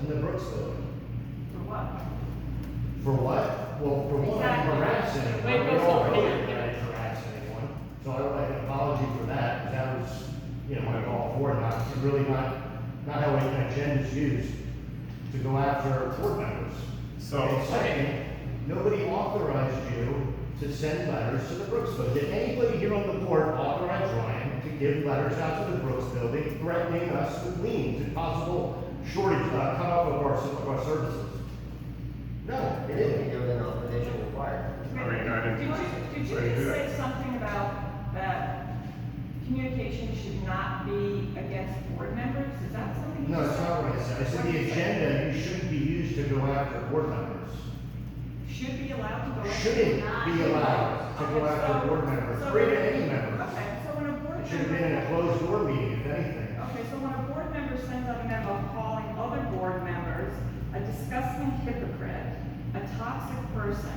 facility. For what? For what? Well, for one, I Exactly. harass anyone, Wait, we what's all the know plan? that I harass anyone, so I would like an apology for that, 'cause that was, you know, I'm all for it, not, it's really not, not how an agenda's used to go after board members. So- And second, nobody authorized you to send letters to the Brooks Building. Did anybody here on the board authorize Ryan to give letters out to the Brooks Building threatening us with liens and possible shortage, uh, cutoff of our, of our services? No, it They didn't isn't. do it on condition required. I mean, I didn't- Did you, did I you didn't do just that. say something about that communication should not be against board members? Is that something? you No, it's said? not what I said. I said What the did you say? agenda, you shouldn't be used to go after board members. Should be allowed to go. after- Shouldn't be allowed to go Okay, after so- board members, so- or even any members. Okay, so when a board. It should have been in a member- closed door meeting, if anything. Okay, so when a board member sends out a memo calling other board members a disgusting hypocrite, a toxic person,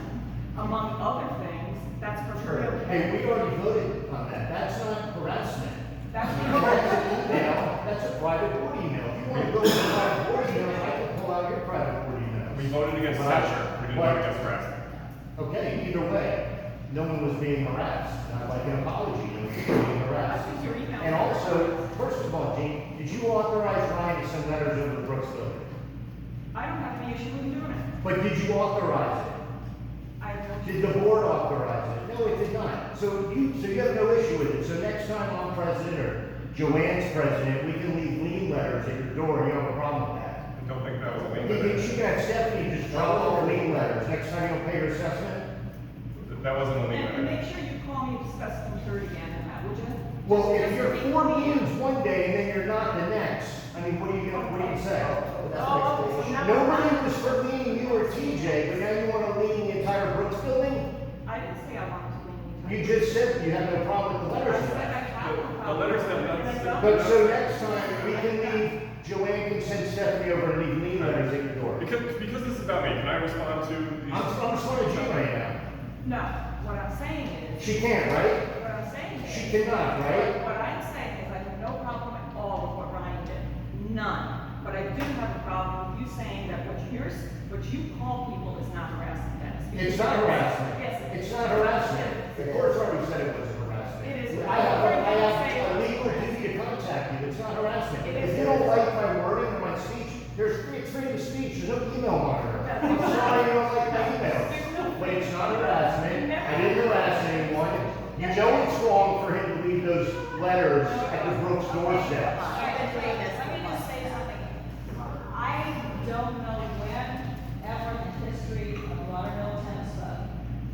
among other things, that's Sure. for. Hey, we already voted on that. That's not harassment. That's Now, for. that's a private board email. If you want to go to a private board email, I can pull out your private board email. We voted against Thatcher, we didn't vote against Braxton. Okay, either way, no one was being harassed. And I'd like an apology, no one was being harassed. That's just your email. And also, first of all, Gene, did you authorize Ryan to send letters over to Brooks Building? I don't have any issue with doing it. But did you authorize it? I don't. Did the board authorize it? No, it did not. So you, so you have no issue with it. So next time I'm president or Joanne's president, we can leave lien letters at your door. You don't have a problem with that. I don't think that was a You lien can, letter. you can have Stephanie just drop all her lien letters. Next time you don't pay your assessment? That wasn't a lien And, and letter. make sure you call me to discuss them through again, and that, would you? Well, if Just you're be- four liens one day and then you're not the next, I mean, what are you gonna, what do you say? But that's an Oh, explanation. now- Nobody was for leaning you or TJ, but now you wanna lean the entire Brooks building? I didn't say I wanted to leave. You just said you have no problem with the I said I letters. have a The problem. letters have nothing to do- But so next time, we can leave, Joanne can send Stephanie over and leave lean letters at your door. Because, because this is about me, can I respond to I'm, these? I'm sort of Jean right now. No, what I'm saying is. She can't, right? What I'm saying is. She cannot, right? What I'm saying is I have no problem at all with what Ryan did, none. But I do have a problem with you saying that what you're, s- what you call people is not harassment, Dennis. because It's not Yes, harassment. it is. It's not harassment. The court's already said it wasn't harassment. It is. I have, a- I have a legal duty to contact you. It's not harassment. If you don't like my wording or my speech, there's free freedom of speech. There's no email monitor. I'm sorry you don't like my emails. But it's not harassment. I didn't harass anyone. You know it's wrong for him to leave those letters at the Brooks doorstep. All right, let's do this. Let me just say something. I don't know when, ever in the history of Lauderdale Tennis Club,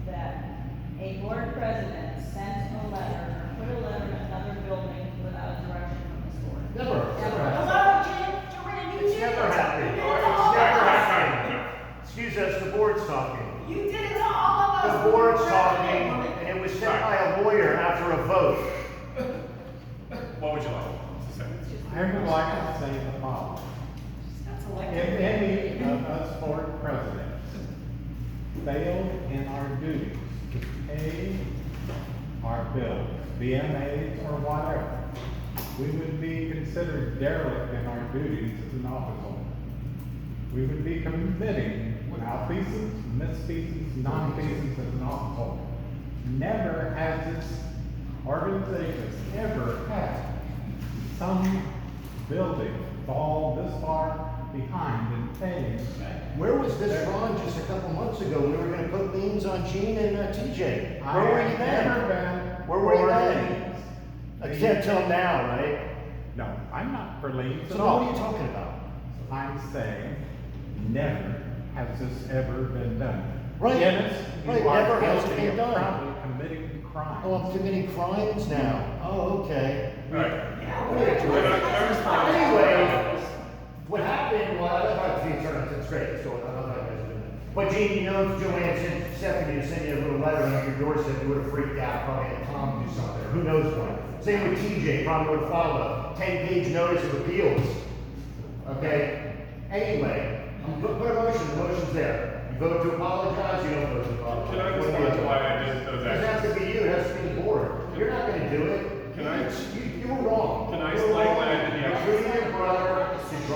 that a board president sent a letter, or put a letter in another building without direction from this board. Never, never happened. Hello, Jim, Joanne, you It's did it. never happened. You did it to all It's of never us. happened. Excuse us, the board's talking. You did it to all of us. The board's talking, and it was sent by a lawyer after a vote. What would you like to say? I would like to say the following. That's If elected. any of us board presidents failed in our duties to pay our bills, BMAs or whatever, we would be considered derelict in our duties as an office holder. We would be committing malfeasance, misfeasance, nonfeasance as an office holder. Never has this organization ever had some building fall this far behind in paying Where was this wrong just a couple months ago? We were gonna put liens on Gene and uh, TJ. I Where were have you then? never been Where were you for then? liens. Except till now, right? No, I'm not for liens So at then what are you all. talking about? I'm saying, never has this ever been done. Right. Dennis, Right, you are never has guilty been done. of probably committing crimes. Oh, I'm committing crimes now. Oh, okay. All right. Can I- Yeah. can I respond? Anyway, what happened, well, I love the attorney, that's great, so I love how you guys do that. But Gene, you know, if Joanne sent Stephanie to send you a little letter on your doorstep, you would have freaked out, probably had Tom do something, who knows what. Same with TJ, probably would have filed a ten-page notice of appeals